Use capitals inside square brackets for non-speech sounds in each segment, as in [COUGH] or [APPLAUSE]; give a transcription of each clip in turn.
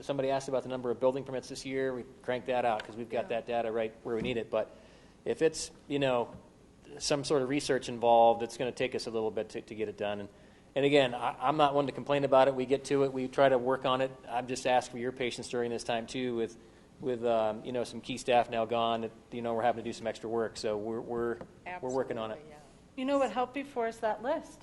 somebody asked about the number of building permits this year, we crank that out, because we've got that data right where we need it, but if it's, you know, some sort of research involved, it's gonna take us a little bit to, to get it done, and, and again, I, I'm not one to complain about it, we get to it, we try to work on it, I'm just asking for your patience during this time too, with, with, um, you know, some key staff now gone, that, you know, we're having to do some extra work, so we're, we're, we're working on it, Absolutely, yeah. You know what helped before is that list.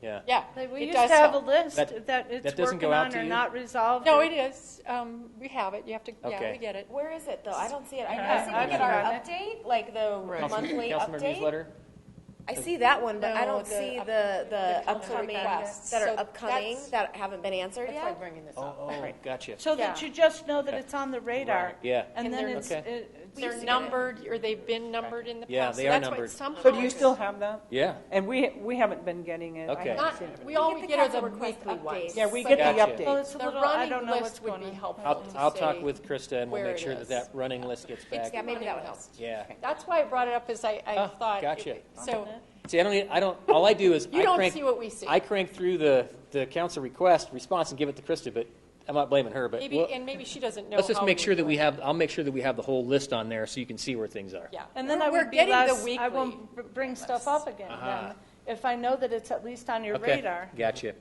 yeah. Yeah. Like, we it used does to have a help. list That- that, it's that doesn't go working out on to or you? not resolved. No, or- it is. Um, we have it. You have to, yeah, Okay. we get it. Where is it though? I don't see it. I, Yeah, I see I've we get our got it. update, like the Right. monthly Councilmember update. newsletter? I see that one, but I No, don't the see up- the, the, the council upcoming requests. that are So upcoming that's- that haven't been answered That's why yet. bringing this Oh, up. oh, Right. gotcha. So that Yeah. you just know that Okay. it's on the radar. Yeah. And And then they're- it's, Okay. it- it's- They're numbered, or they've been numbered in the past. Yeah, so they are that's why numbered. somehow So do you it's- still have that? Yeah. And we, we haven't been getting it. I Okay. haven't Not, seen it. we always the get are council the request weekly ones. updates. Yeah, we but get Gotcha. the well, update. it's a The little, I running don't know what's list going would be on. helpful I'll, to I'll talk say with Krista and we'll where make it sure that is. that running list gets back. Yeah, maybe that would help. Yeah. That's why I brought it up, is I, I Ah, thought. gotcha. So, See, I don't, need- I don't, all I do is. You I don't crank- see what we see. I crank through the, the council request response and give it to Krista, but I'm not blaming her, but. maybe, we'll- and maybe she doesn't know. Let's just how make we sure that do we it. have, I'll make sure that we have the whole list on there so you can see where things are. Yeah. And then We're- I we're would be getting the less, I weekly. won't br- bring stuff up again Uh-huh. then, if I know that it's at least on your Okay, radar. Gotcha.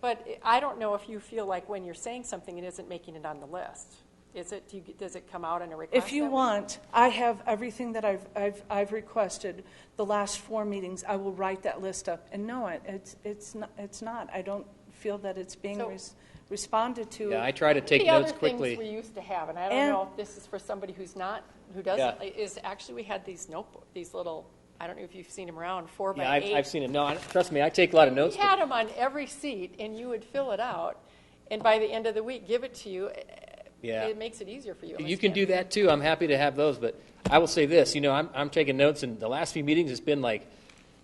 But I don't know if you feel like when you're saying something, it isn't making it on the list. Is it, do you, does it come out in a request? If you that way? want, I have everything that I've, I've, I've requested the last four meetings. I will write that list up. And no, it- it's, it's not, it's not. I don't feel that it's being So- res- responded to. Yeah, I try to take The other notes things we quickly. used to have, and I don't And- know if this is for somebody who's not, who doesn't, is actually, we had these notebook, these little, I don't know if you've seen them around, four Yeah, by I've, eight. I've seen it. No, I- trust me, I take a lot of We notes. but- had them on every seat, and you would fill it out, and by the end of the week, give it to you. Eh, Yeah. It makes it easier for you. at You least can get it. do that too. I'm happy to have those, but I will say this, you know, I'm, I'm taking notes and the last few meetings, it's been like,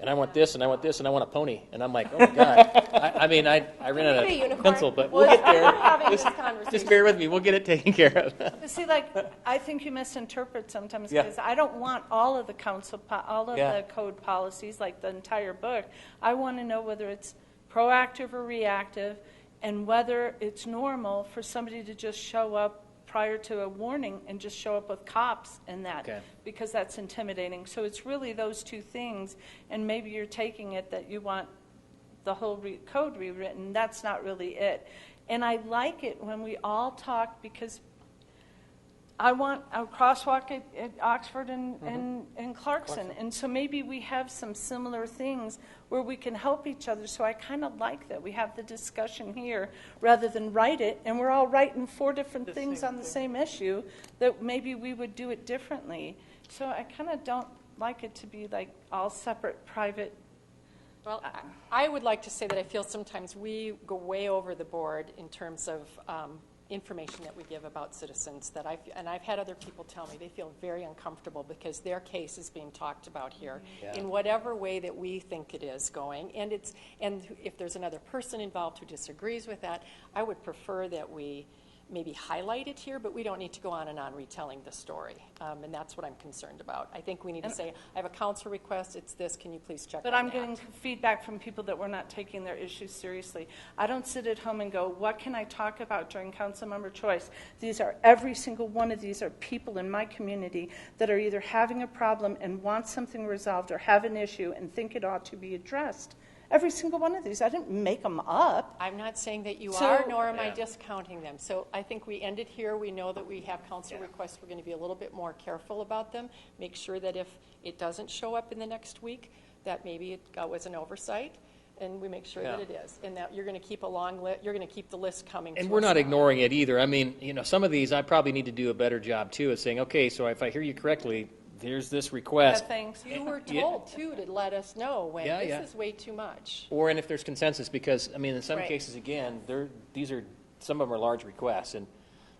and I want this and I want this and I want a pony. And I'm like, oh my God. I, I mean, I, I ran out Pretty of unicorn. pencil, but we'll get We're there. [LAUGHS] having this Just conversation. bear with me. We'll get it taken [LAUGHS] care of. But See, like, I think you misinterpret sometimes, Yeah. because I don't want all of the council, po- all of Yeah. the code policies, like the entire book. I want to know whether it's proactive or reactive, and whether it's normal for somebody to just show up prior to a warning and just show up with cops and Okay. that, because that's intimidating. So it's really those two things, and maybe you're taking it that you want the whole re- code rewritten. That's not really it. And I like it when we all talk, because I want a crosswalk at, at Oxford and, and, and Mm-hmm. Clarkson. And so maybe we have some similar things where we can help each other. So I kind of like that we have the discussion here rather than write it. And we're all writing four different things on the same issue that maybe we would do it differently. So I kind of don't like it to be like all separate private. Uh, Well, I I would like to say that I feel sometimes we go way over the board in terms of um, information that we give about citizens that I've, and I've had other people tell me, they feel very uncomfortable because their case is being talked about here Yeah. in whatever way that we think it is going. And it's, and if there's another person involved who disagrees with that, I would prefer that we maybe highlight it here, but we don't need to go on and on retelling the story. Um, And that's what I'm concerned about. I think we need to say, I have a council request, it's this, can you please check on But that? I'm getting feedback from people that we're not taking their issues seriously. I don't sit at home and go, what can I talk about during council member choice? These are, every single one of these are people in my community that are either having a problem and want something resolved or have an issue and think it ought to be addressed. Every single one of these. I didn't make them up. I'm not saying that you So- are, nor am I Yeah. discounting them. So I think we ended here. We know that we have council requests. We're going to be a little bit more careful about them. Make sure that if it doesn't show up in the next week, that maybe it uh, was an oversight, and we make sure that Yeah. it is. And that you're going to keep a long li, you're going to keep the list coming to us. And we're not now. ignoring it either. I mean, you know, some of these, I probably need to do a better job too of saying, okay, so if I hear you correctly, there's this request. Thanks. You were Yeah. told, too, to let us know when, Yeah, yeah. this is way too much. Or, and if there's consensus, because, I mean, in some Right. cases, again, there, these are, some of them are large requests, and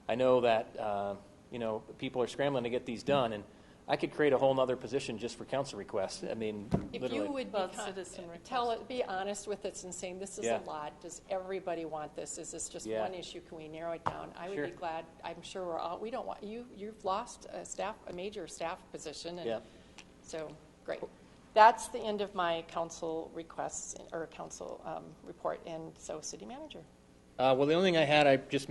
I know that, uh, you know, people are scrambling to get these done, and I could create a whole nother position just for council requests, I mean, If you literally. would be, Well, con- citizen tell it, be honest with us and saying, this is Yeah. a lot, does everybody want this? Is this just Yeah. one issue? Can we narrow it down? I would Sure. be glad, I'm sure we're all, we don't want, you, you've lost a staff, a major staff position, Yeah. and so, great. That's the end of my council requests, or council um, report, and so, city manager. Uh, well, the only thing I had, I just